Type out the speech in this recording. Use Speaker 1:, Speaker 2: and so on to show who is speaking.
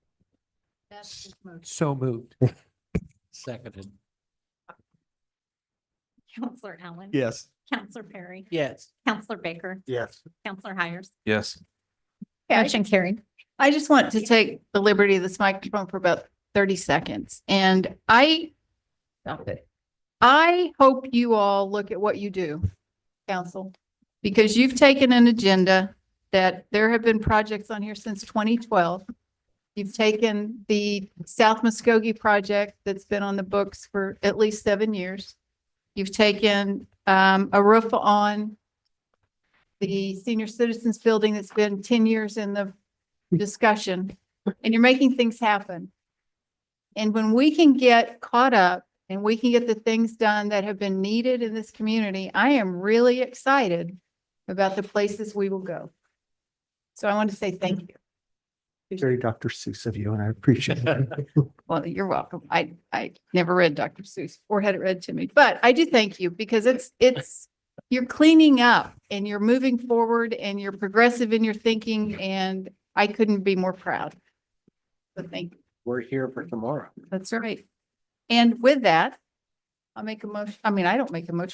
Speaker 1: That's his motion.
Speaker 2: So moved. Seconded.
Speaker 1: Counselor Allen.
Speaker 3: Yes.
Speaker 1: Counselor Perry.
Speaker 2: Yes.
Speaker 1: Counselor Baker.
Speaker 3: Yes.
Speaker 1: Counselor Hires.
Speaker 4: Yes.
Speaker 5: Yeah, I
Speaker 1: Motion carried.
Speaker 5: I just want to take the liberty of this microphone for about thirty seconds and I stop it. I hope you all look at what you do, council, because you've taken an agenda that there have been projects on here since twenty twelve. You've taken the South Muskogee project that's been on the books for at least seven years. You've taken um a roof on the senior citizens building that's been ten years in the discussion and you're making things happen. And when we can get caught up and we can get the things done that have been needed in this community, I am really excited about the places we will go. So I want to say thank you.
Speaker 3: Very Dr. Seuss of you, and I appreciate it.
Speaker 5: Well, you're welcome. I, I never read Dr. Seuss or had it read to me, but I do thank you because it's, it's, you're cleaning up and you're moving forward and you're progressive in your thinking and I couldn't be more proud. So thank you.
Speaker 2: We're here for tomorrow.
Speaker 5: That's right. And with that, I'll make a motion, I mean, I don't make a motion